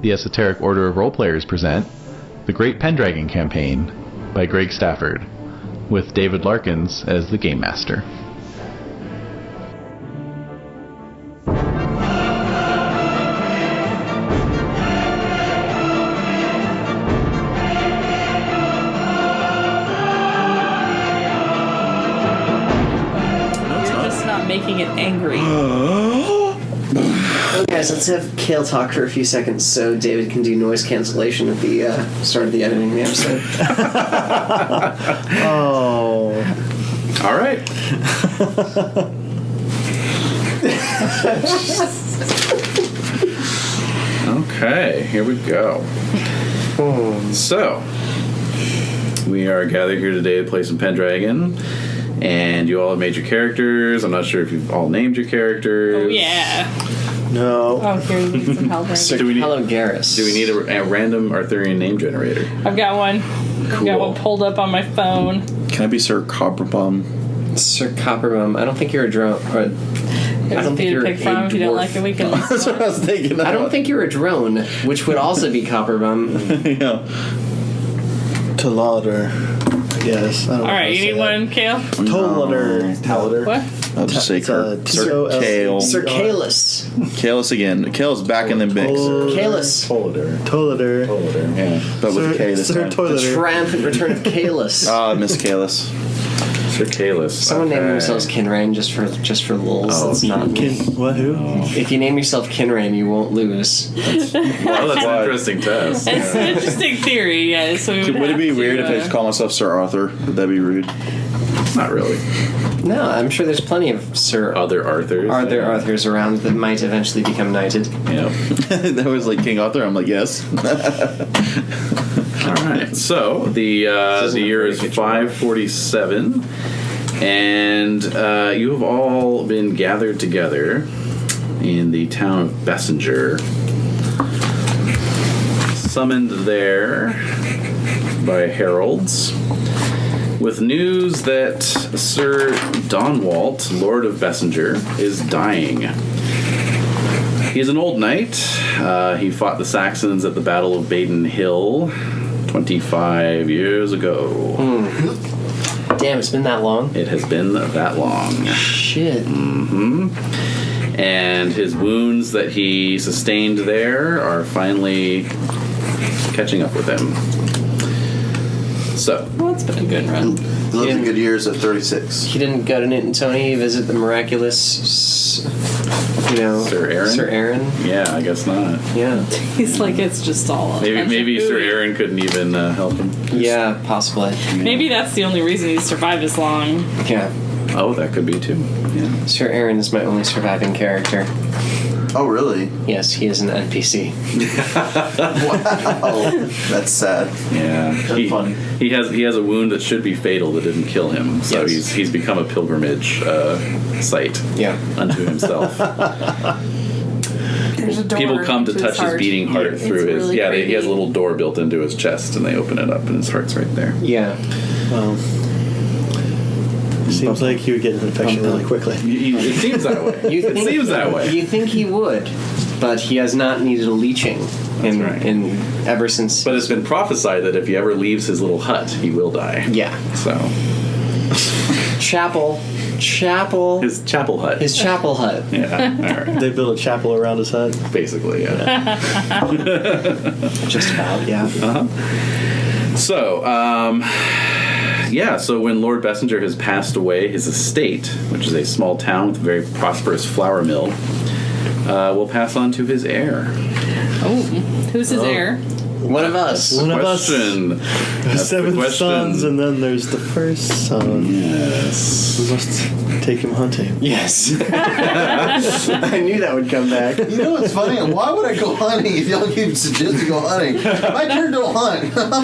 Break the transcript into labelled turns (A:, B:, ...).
A: the Esoteric Order of Role Players present The Great Pendragon Campaign by Greg Stafford, with David Larkins as the Game Master.
B: You're just not making it angry.
C: Guys, let's have Kale talk for a few seconds so David can do noise cancellation at the uh, start of the editing of the episode. oh.
D: All right. okay, here we go. So, we are gathered here today to play some Pendragon, and you all have made your characters. I'm not sure if you've all named your characters.
B: Oh, yeah.
C: No.
B: Oh, here, you need some help.
D: Do we need-
C: Hello, Garrus.
D: Do we need a, a random Arthurian name generator?
B: I've got one. I've
D: Cool.
B: got one pulled up on my phone.
E: Can I be Sir Copperbomb?
C: Sir Copperbum? I don't think you're a drone. Or, I
B: There's a
C: don't think
B: few to
C: you're
B: pick from.
C: a
B: If you don't
C: dwarf.
B: like it, we can.
E: That's what I was thinking.
C: I don't think you're a drone, which would also be
D: Oh
C: Copperbum.
E: yeah.
F: Talader. Yes. I don't
B: All right, you need one, Kale.
F: Tolader. Talader.
B: What?
E: I'll just say
F: It's a
E: Sir
F: T-O-L-C.
E: Kale.
C: Sir Kalis.
E: Kale's again. Kale's back in the mix,
C: Kalis.
D: Tolader.
F: Tolader.
D: Tolader.
E: yeah, but Oh, with a K
F: Sir,
E: this
F: Sir
E: time.
C: The
F: Toileter.
C: triumphant return of Kalis.
E: Ah, Miss Kalis.
D: Sir Kalis.
C: Someone named
D: Oh, Okay. Oh,
C: themselves Kinrain just for just for lulz. That's not me.
F: Kin- what? Who?
E: Oh.
C: If you name yourself Kinrain, you won't lose.
D: Well, that's an interesting test.
B: It's an interesting theory, yeah. So we would,
E: Would it
B: have
E: be
B: to,
E: weird if I
B: uh,
E: just call myself Sir Arthur? Would that be rude?
D: Not really.
C: No, I'm sure there's plenty of Sir
D: Other Arthurs.
C: Are there Arthurs around that might eventually become knighted?
D: Yeah.
E: that was like King Arthur. I'm like, yes.
D: All right. So the uh,
C: This
D: the
C: isn't a
D: year
C: very
D: is
C: good
D: five forty seven, and uh, you have all been gathered together in the town of Bessinger, summoned there by heralds with news that Sir Donwalt, Lord of Bessinger, is dying. He's an old knight. Uh, he fought the Saxons at the Battle of Baden Hill 25 years ago.
C: Damn, it's been that long.
D: It has been that long.
C: Shit.
D: Hmm. And his wounds that he sustained there are finally catching up with him. So,
B: Well, it's been a good run.
G: Lived in good years at 36.
C: He didn't go to Newton Tony visit the miraculous, s- you know,
D: Sir Aaron?
C: Sir Aaron.
D: yeah, I guess not.
C: Yeah.
B: He's like, it's just all. a bunch
D: Maybe
B: of
D: maybe Sir
B: hooey.
D: Aaron couldn't even uh, help him.
C: Yeah, possibly.
B: Maybe that's the only reason he survived as long.
C: Yeah.
D: Oh, that could be too. Yeah.
C: Sir Aaron is my only surviving character.
G: Oh, really?
C: Yes, he is an NPC.
G: Oh, that's sad.
D: Yeah. he,
F: funny.
D: he has he has a wound that should be fatal that didn't kill him. So
C: Yes.
D: he's he's become a pilgrimage uh, site
C: Yeah.
D: unto himself.
B: There's a door
D: People come to touch his, beating heart
B: It's
D: through his
B: really
D: yeah. They, he has a
B: creepy.
D: little door built into his chest, and they open it up, and his heart's right there.
C: Yeah.
F: Well, seems like he would get an infection really quickly.
D: You- you- It seems that way.
C: You
D: it
C: think-
D: seems that way.
C: You think he would, but he has not needed a leeching in,
D: right.
C: in ever since.
D: But it's been prophesied that if he ever leaves his little hut, he will die.
C: yeah.
D: So
C: Chapel. Chapel.
D: his chapel hut.
C: His chapel hut.
D: yeah. All right.
F: They built a chapel around his head.
D: Basically, yeah.
C: Just
E: Oh,
C: about, yeah.
D: So, um, yeah, so when Lord Bessinger has passed away, his estate, which is a small town with a very prosperous flour mill, uh, will pass on to his heir.
B: Oh, who's his heir?
C: One of us.
F: One of us.
D: question.
F: There's
D: That's the
F: seven
D: question.
F: sons, and then there's the first son.
D: Yes.
F: We must take him hunting.
C: Yes. I knew that would come back.
G: You know what's funny? Why would I go hunting if y'all keep suggesting go hunting? My character don't hunt.